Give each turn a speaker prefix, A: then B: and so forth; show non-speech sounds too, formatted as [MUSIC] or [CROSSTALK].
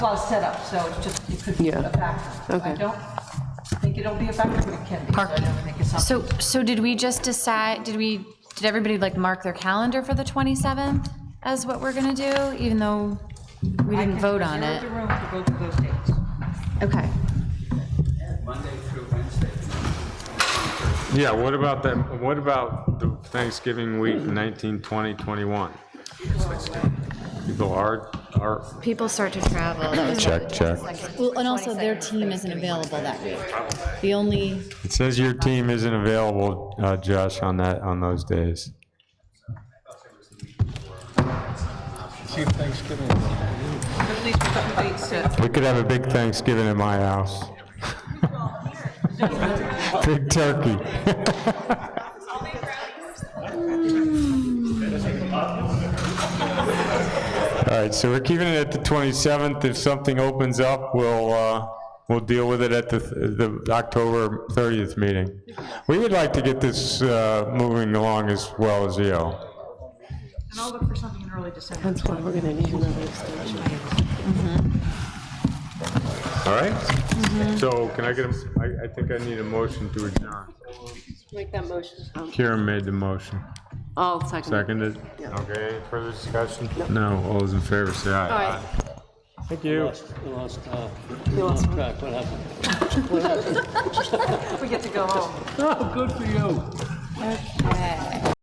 A: well, it's set up, so it's just, it could be
B: Yeah.
A: a factor. I
B: Okay.
A: don't think it'll be a factor, but it can be, so I
C: Parking.
A: don't think it's something.
C: So, so did we just decide, did we, did everybody like mark their calendar for the 27th as what we're going to do, even though we
A: I
C: didn't
A: can
C: vote on
A: reserve
C: it?
A: the room for both of those dates.
C: Okay.
D: Monday through Wednesday.
E: Yeah, what about that, what about the Thanksgiving week, 19, 20, 21? People are, are,
C: People start to travel. That was
F: Check, check.
G: Well, and also their team isn't available that week. The only,
E: it says your team isn't available, uh, Josh, on that, on those days.
A: At least a couple dates to,
E: We could have a big Thanksgiving at my house. [LAUGHS] Big turkey. [LAUGHS] All right, so we're keeping it at the 27th. If something opens up, we'll, uh, we'll deal with it at the, the October 30th meeting. We would like to get this, uh, moving along as well as E you.
A: and I'll look for something in early December.
B: That's why we're gonna need another extension.
E: All right? So can I get, a- I, I think I need a motion to adjourn.
B: Make that motion.
E: Karen made the motion.
B: I'll second. it.
E: Seconded? Okay, any further discussion? No, all those in favor say aye.
B: Aye.
E: Thank you.
H: We lost, uh,
B: You want some?
H: track, what happened?
A: We get to go home.
H: Oh, good for you.
C: Okay.